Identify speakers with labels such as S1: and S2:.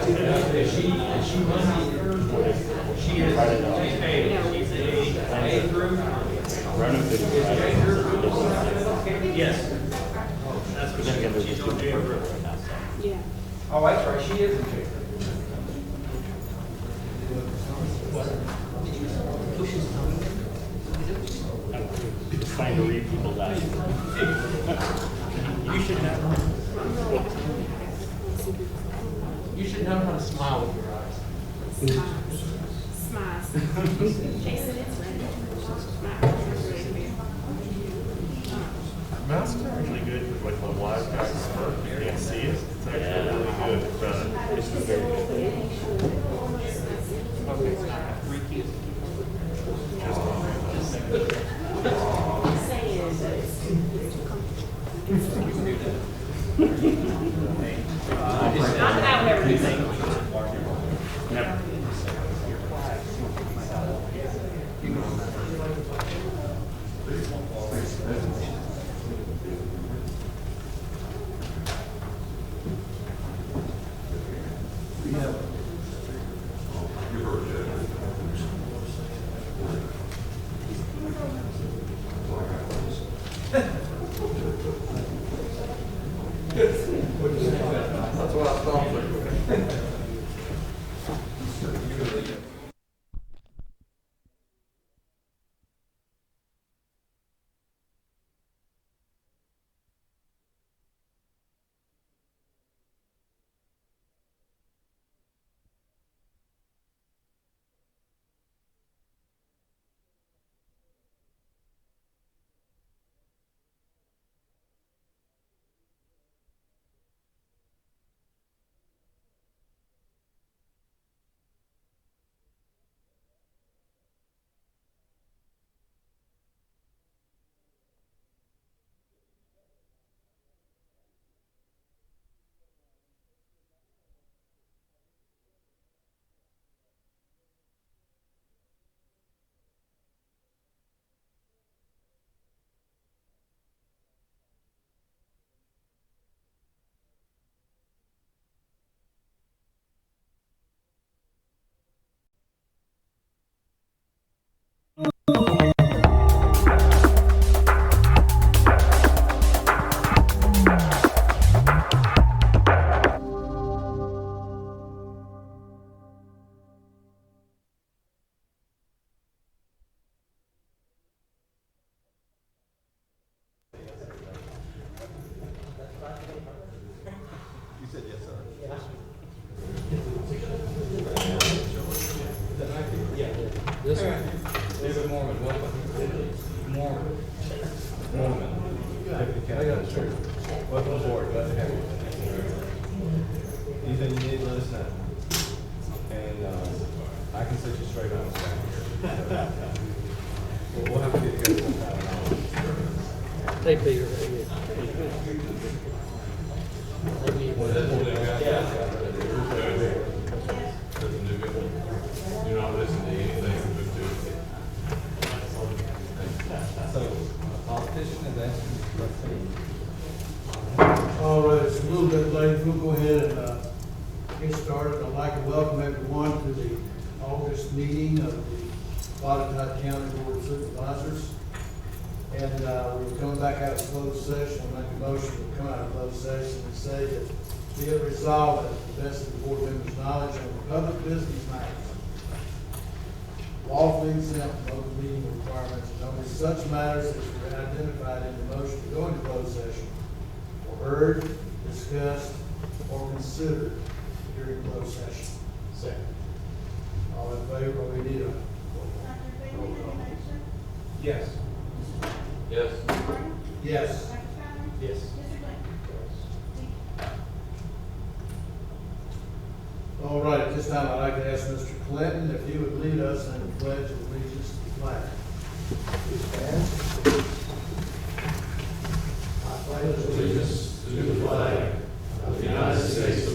S1: Because she, and she was, she is, she's paid, she's a, an A through. Is J through approval now? Yes. That's what she, she's on J through.
S2: Yeah.
S1: Oh, that's right, she is in J through.
S3: trying to read people's eyes. You should have.
S4: You should know how to smile with your eyes.
S2: Smiles. Smiles. Jason, it's ready.
S5: Masks are really good with like the live guy smirk. You can't see it. It's actually really good. But it's very good.
S2: Not that I would ever do that.
S1: David Mormon, welcome. Mormon. Mormon. I got it, sir. Welcome aboard, glad to have you. Anything you need, let us know. And, uh, I can set you straight on the back here. We'll- We'll have to get together sometime.
S4: Hey, Peter, right here.
S5: You're not listening to anything but to
S1: So, a politician is asking this question.
S6: All right, it's a little bit late, we'll go ahead and uh, get started. I'd like to welcome everyone to the August meeting of the Wadatah County Board of Supervisors. And uh, we're coming back out of closed session, I'll make a motion to come out of closed session and say that be it resolved that the best of the board members' knowledge on public business matters lawfully exempt from open meeting requirements and only such matters as were identified in the motion to go into closed session or heard, discussed, or considered during closed session. Second. All in favor, we need a
S1: Yes.
S6: yes.
S1: Yes.
S6: All right, at this time, I'd like to ask Mr. Clinton if he would lead us in the pledge of allegiance to the flag. Please stand. I pledge allegiance
S7: allegiance to the flag of the United States of